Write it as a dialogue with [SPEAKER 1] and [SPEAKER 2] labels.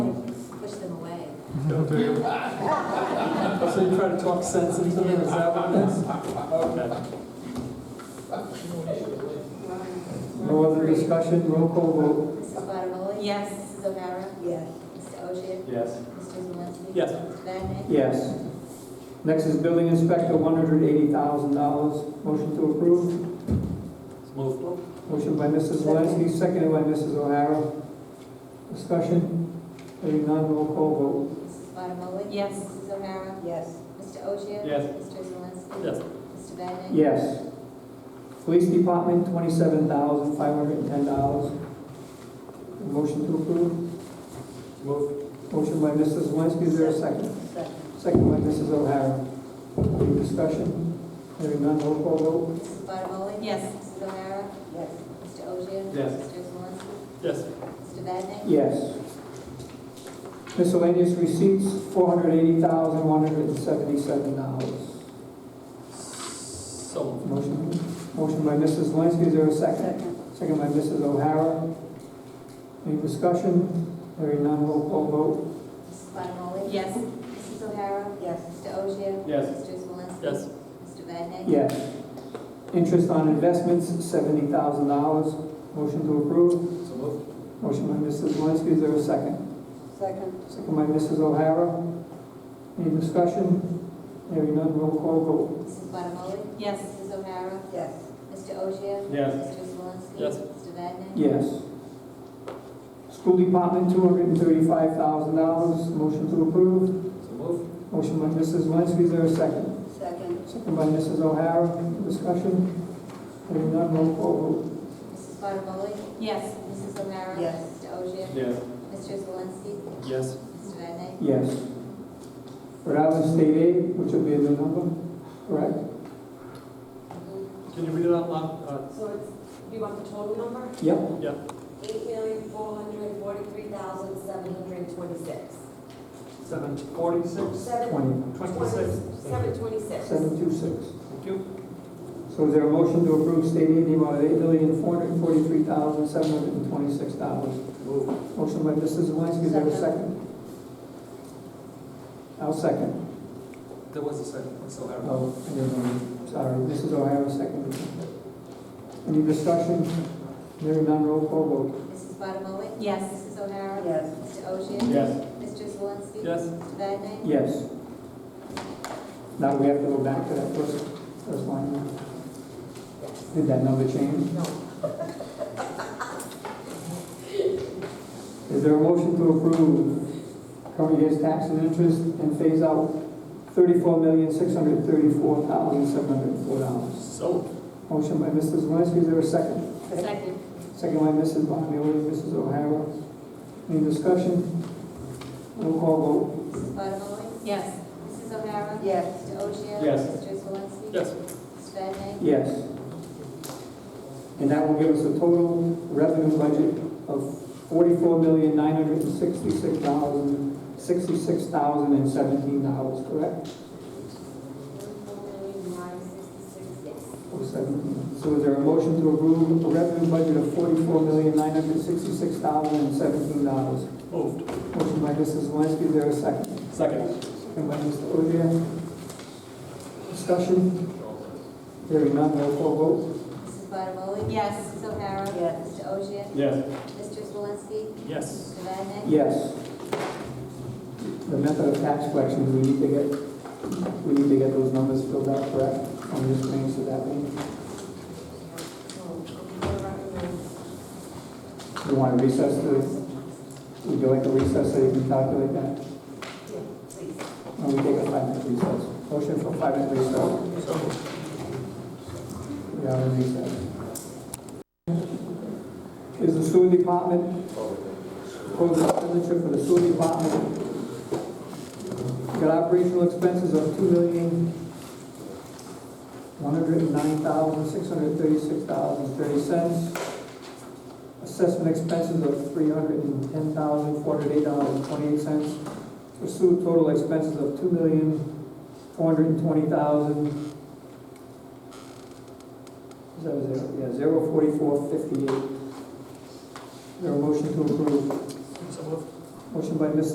[SPEAKER 1] Don't do it. So you try to talk sense into them, is that what it is? Okay. No other discussion, roll call vote.
[SPEAKER 2] Mrs. Bottomoli?
[SPEAKER 3] Yes.
[SPEAKER 2] Mrs. O'Hara?
[SPEAKER 3] Yes.
[SPEAKER 2] Mr. Oshia?
[SPEAKER 1] Yes.
[SPEAKER 2] Mr. Zelinski?
[SPEAKER 1] Yes.
[SPEAKER 2] Mr. Vadeney?
[SPEAKER 1] Yes. Next is building inspector, one hundred eighty thousand dollars. Motion to approve. Motion by Mrs. Zlansky, seconded by Mrs. O'Hara. Discussion, hearing none, roll call vote.
[SPEAKER 2] Mrs. Bottomoli?
[SPEAKER 3] Yes.
[SPEAKER 2] Mrs. O'Hara?
[SPEAKER 3] Yes.
[SPEAKER 2] Mr. Oshia?
[SPEAKER 1] Yes.
[SPEAKER 2] Mr. Zelinski?
[SPEAKER 1] Yes.
[SPEAKER 2] Mr. Vadeney?
[SPEAKER 1] Yes. Police Department, twenty-seven thousand, five hundred and ten dollars. Motion to approve? Move. Motion by Mrs. Zelinski, is there a second?
[SPEAKER 3] Second.
[SPEAKER 1] Second by Mrs. O'Hara. Any discussion? Hearing none, roll call vote?
[SPEAKER 2] Mrs. Bottomoli?
[SPEAKER 3] Yes.
[SPEAKER 2] Mrs. O'Hara?
[SPEAKER 3] Yes.
[SPEAKER 2] Mr. Oshia?
[SPEAKER 1] Yes.
[SPEAKER 2] Mr. Zelinski?
[SPEAKER 1] Yes.
[SPEAKER 2] Mr. Vadeney?
[SPEAKER 1] Yes. Miscellaneous receipts, four hundred eighty thousand, one hundred and seventy-seven dollars. So. Motion, motion by Mrs. Zelinski, is there a second?
[SPEAKER 3] Second.
[SPEAKER 1] Second by Mrs. O'Hara. Any discussion? Hearing none, roll call vote.
[SPEAKER 2] Mrs. Bottomoli?
[SPEAKER 3] Yes.
[SPEAKER 2] Mrs. O'Hara?
[SPEAKER 3] Yes.
[SPEAKER 2] Mr. Oshia?
[SPEAKER 1] Yes.
[SPEAKER 2] Mr. Zelinski? Mr. Vadeney?
[SPEAKER 1] Yes. Interest on investments, seventy thousand dollars. Motion to approve.
[SPEAKER 4] So moved.
[SPEAKER 1] Motion by Mrs. Zelinski, is there a second?
[SPEAKER 3] Second.
[SPEAKER 1] Second by Mrs. O'Hara. Any discussion? Hearing none, roll call vote.
[SPEAKER 2] Mrs. Bottomoli?
[SPEAKER 3] Yes.
[SPEAKER 2] Mrs. O'Hara?
[SPEAKER 3] Yes.
[SPEAKER 2] Mr. Oshia?
[SPEAKER 1] Yes.
[SPEAKER 2] Mr. Zelinski?
[SPEAKER 4] Yes.
[SPEAKER 2] Mr. Vadeney?
[SPEAKER 1] Yes. School Department, two hundred and thirty-five thousand dollars. Motion to approve.
[SPEAKER 4] So moved.
[SPEAKER 1] Motion by Mrs. Zelinski, is there a second?
[SPEAKER 3] Second.
[SPEAKER 1] Second by Mrs. O'Hara, discussion, hearing none, roll call vote.
[SPEAKER 2] Mrs. Bottomoli?
[SPEAKER 3] Yes.
[SPEAKER 2] Mrs. O'Hara?
[SPEAKER 3] Yes.
[SPEAKER 2] Mr. Oshia?
[SPEAKER 1] Yes.
[SPEAKER 2] Mr. Zelinski?
[SPEAKER 4] Yes.
[SPEAKER 2] Mr. Vadeney?
[SPEAKER 1] Yes. Rhode Island State Aid, which will be a new number, correct?
[SPEAKER 4] Can you read it out loud? Uh,
[SPEAKER 5] So it's, you want the total number?
[SPEAKER 1] Yep.
[SPEAKER 5] Eight million, four hundred forty-three thousand, seven hundred twenty-six.
[SPEAKER 4] Seven forty-six,
[SPEAKER 5] Seven,
[SPEAKER 1] Twenty,
[SPEAKER 4] twenty-six.
[SPEAKER 5] seven twenty-six.
[SPEAKER 1] seven two six.
[SPEAKER 4] Thank you.
[SPEAKER 1] So is there a motion to approve state aid in the amount of eight million, four hundred and forty-three thousand, seven hundred and twenty-six dollars?
[SPEAKER 4] Move.
[SPEAKER 1] Motion by Mrs. Zelinski, Oh, is there a second? I'll second.
[SPEAKER 4] There was a second, so I
[SPEAKER 1] Oh, I don't know. sorry, Mrs. O'Hara, second. Any discussion? Hearing none, roll call vote.
[SPEAKER 2] Mrs. Bottomoli?
[SPEAKER 3] Yes.
[SPEAKER 2] Mrs. O'Hara?
[SPEAKER 3] Yes.
[SPEAKER 2] Mr. Oshia?
[SPEAKER 4] Yes.
[SPEAKER 2] Mr. Zelinski?
[SPEAKER 4] Yes.
[SPEAKER 2] Mr. Vadeney?
[SPEAKER 1] Yes. Now we have to go back to that first, first line. Did that number change?
[SPEAKER 5] No.
[SPEAKER 1] Is there a motion to approve current year's tax and interest and phase out thirty-four million, six hundred thirty-four thousand, seven hundred four dollars?
[SPEAKER 4] So.
[SPEAKER 1] Motion by Mrs. Zelinski, is there a second?
[SPEAKER 3] Second.
[SPEAKER 1] Second by Mrs. Bonneville and Mrs. O'Hara. Any discussion? Roll call vote.
[SPEAKER 2] Mrs. Bottomoli?
[SPEAKER 3] Yes.
[SPEAKER 2] Mrs. O'Hara?
[SPEAKER 3] Yes.
[SPEAKER 2] Mr. Oshia?
[SPEAKER 4] Yes.
[SPEAKER 2] Mr. Zelinski?
[SPEAKER 4] Yes.
[SPEAKER 2] Mr. Vadeney?
[SPEAKER 1] Yes. And that will give us a total revenue budget of forty-four million, nine hundred and sixty-six thousand, sixty-six thousand and seventeen dollars, correct?
[SPEAKER 5] Four million, nine sixty-six, yes.
[SPEAKER 1] Or seventeen. So is there a motion to approve a revenue budget of forty-four million, nine hundred and sixty-six thousand and seventeen dollars?
[SPEAKER 4] Moved.
[SPEAKER 1] Motion by Mrs. Zelinski, is there a second?
[SPEAKER 4] Second.
[SPEAKER 1] Second by Mr. Ogier. Discussion? Hearing none, roll call vote.
[SPEAKER 2] Mrs. Bottomoli?
[SPEAKER 3] Yes.
[SPEAKER 2] Mrs. O'Hara?
[SPEAKER 3] Yes.
[SPEAKER 2] Mr. Oshia?
[SPEAKER 4] Yes.
[SPEAKER 2] Mr. Zelinski?
[SPEAKER 4] Yes.
[SPEAKER 2] Mr. Vadeney?
[SPEAKER 1] Yes. The method of tax collection, we need to get, we need to get those numbers filled out correct from this range to that range.
[SPEAKER 5] So, okay, what about your-
[SPEAKER 1] You want to recess the, would you like a recess so you can calculate that?
[SPEAKER 5] Yeah, please.
[SPEAKER 1] Or we take a five-minute recess? Motion for five-minute recess.
[SPEAKER 4] So moved.
[SPEAKER 1] We are in recess. Is the sewer department, total expenditure for the sewer department? Got operational expenses of two million, one hundred and nine thousand, six hundred and thirty-six thousand, thirty cents. Assessment expenses of three hundred and ten thousand, four hundred eight dollars, twenty-eight cents. Pursue total expenses of two million, four hundred and twenty thousand. Is that a zero? Yeah, zero forty-four fifty-eight. Is there a motion to approve?
[SPEAKER 4] So moved.
[SPEAKER 1] Motion by Mrs.